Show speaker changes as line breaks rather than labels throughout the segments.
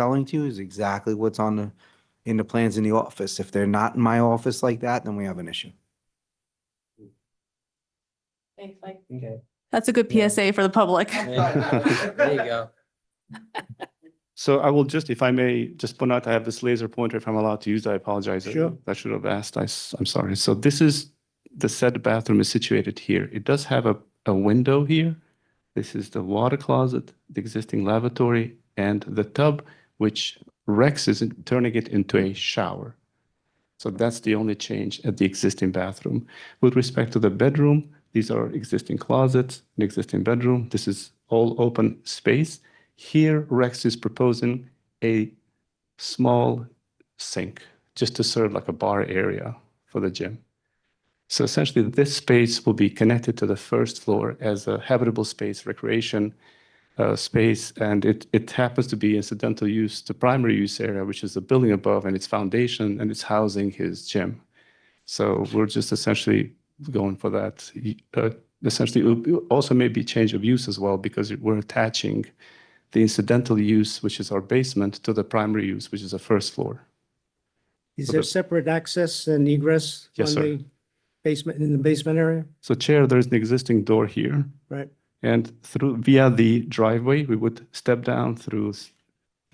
selling to you is exactly what's on the, in the plans in the office. If they're not in my office like that, then we have an issue.
Thanks, Mike.
Okay.
That's a good
Yeah.
PSA for the public.
There you go.
So I will just, if I may, just point out, I have this laser pointer, if I'm allowed to use that, I apologize. I-
Sure.
I should have asked, I, am sorry. So this is, the said bathroom is situated here. It does have a, a window here. This is the water closet, the existing lavatory, and the tub, which Rex is in- turning it into a shower. So that's the only change at the existing bathroom. With respect to the bedroom, these are existing closets, an existing bedroom. This is all open space. Here, Rex is proposing a small sink just to serve like a bar area for the gym. So essentially, this space will be connected to the first floor as a habitable space, recreation uh, space, and it, it happens to be incidental use to primary use area, which is the building above and its foundation, and it's housing his gym. So we're just essentially going for that. Y- uh, Essentially, it'll be- also maybe change of use as well, because we're attaching the incidental use, which is our basement, to the primary use, which is the first floor.
Is
So
there
the-
separate access and egress?
Yes,
on
sir.
the Basement, in the basement area?
So Chair, there's an existing door here.
Right.
And through, via the driveway, we would step down through s-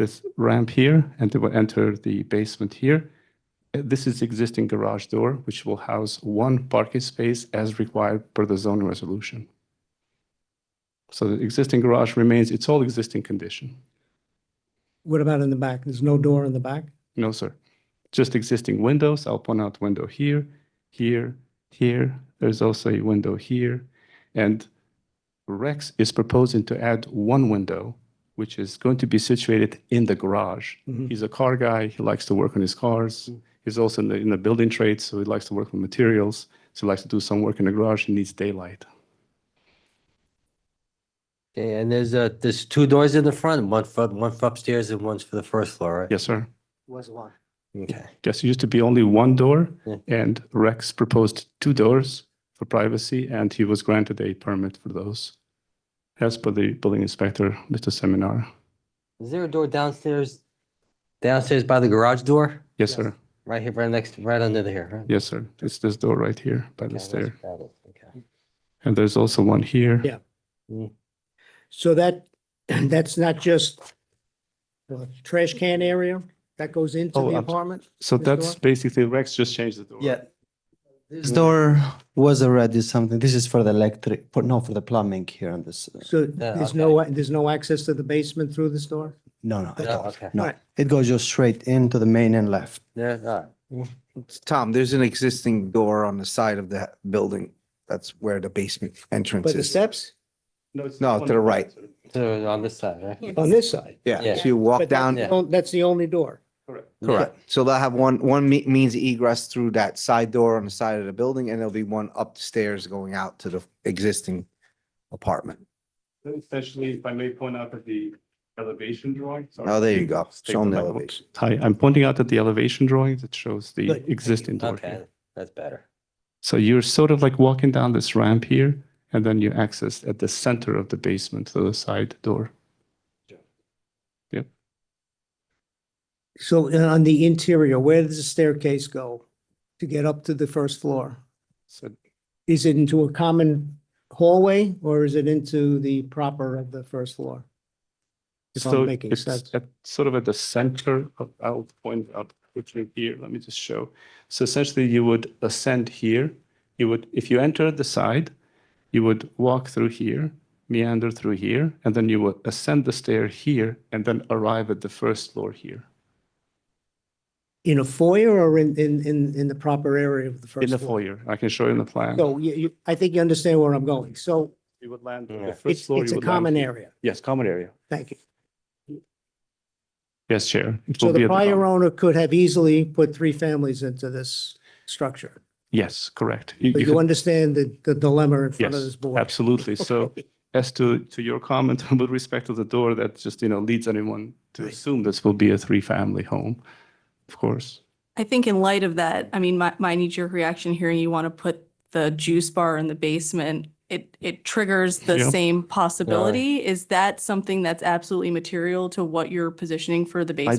this ramp here and to enter the basement here. Uh, This is the existing garage door, which will house one parking space as required per the zoning resolution. So the existing garage remains, it's all existing condition.
What about in the back? There's no door in the back?
No, sir. Just existing windows. I'll point out window here, here, here. There's also a window here. And Rex is proposing to add one window, which is going to be situated in the garage.
Mhm.
He's a car guy. He likes to work on his cars. He's also in the, in the building trade, so he likes to work with materials. So he likes to do some work in the garage. He needs daylight.
Okay, and there's uh there's two doors in the front, one for, one for upstairs and one's for the first floor, right?
Yes, sir.
Was one.
Okay.
Yes, it used to be only one door,
Yeah.
and Rex proposed two doors for privacy, and he was granted a permit for those. As per the building inspector, Mr. Seminar.
Is there a door downstairs, downstairs by the garage door?
Yes, sir.
Right here, right next, right under here, right?
Yes, sir. It's this door right here by
Okay,
the
that's
stair.
about it, okay.
And there's also one here.
Yeah. So that, that's not just the trash can area that goes into
Oh,
the
I'm-
apartment?
So
This
that's
door?
basically, Rex just changed the door.
Yeah. This door was already something, this is for the electric, for, no, for the plumbing here on this, uh,
So
Yeah,
there's no, there's no access to the basement through this door?
no, no, at
No,
all.
okay.
no.
Right.
It goes just straight into the main and left.
There, all right.
Tom, there's an existing door on the side of the building. That's where the basement entrance
But the
is.
steps
No, to the right.
So on this side, right?
on this side?
Yeah,
Yeah.
so you walk
But that's
down,
the on- That's the only door.
correct. So they'll have one, one me- means egress through that side door on the side of the building, and there'll be one upstairs going out to the existing apartment.
Essentially, if I may point out that the elevation drawing.
Oh, there you go. Show them the elevation.
Hi, I'm pointing out that the elevation drawing that shows the
Good.
existing door here.
Okay, that's better.
So you're sort of like walking down this ramp here, and then you access at the center of the basement to the side door.
So uh, on the interior, where does the staircase go to get up to the first floor?
So
Is it into a common hallway or is it into the proper of the first floor? If
so
I'm making
it's
sense.
at- Sort of at the center of, I'll point out quickly here, let me just show. So essentially, you would ascend here. You would, if you enter the side, you would walk through here, meander through here, and then you would ascend the stair here, and then arrive at the first floor here.
In a foyer or in, in, in, in the proper area of the first floor?
In the foyer, I can show you in the plan.
So you, you, I think you understand where I'm going. So
You would land
on the
the first
it's,
floor.
it's a common area.
Yes, common area.
Thank you.
Yes, Chair. It
So
will be
the
at
prior
bottom.
owner could have easily put three families into this structure.
Yes, correct. You-
But
you
you
could-
understand the, the dilemma in front of
Yes,
this board?
Absolutely. So as to, to your comment with respect to the door, that just, you know, leads anyone to assume this will be a three-family home, of course.
I think in light of that, I mean, my, my knee jerk reaction hearing you want to put the juice bar in the basement
it, it triggers the
Yeah.
same possibility. Is that something that's absolutely material to what you're positioning for the basement?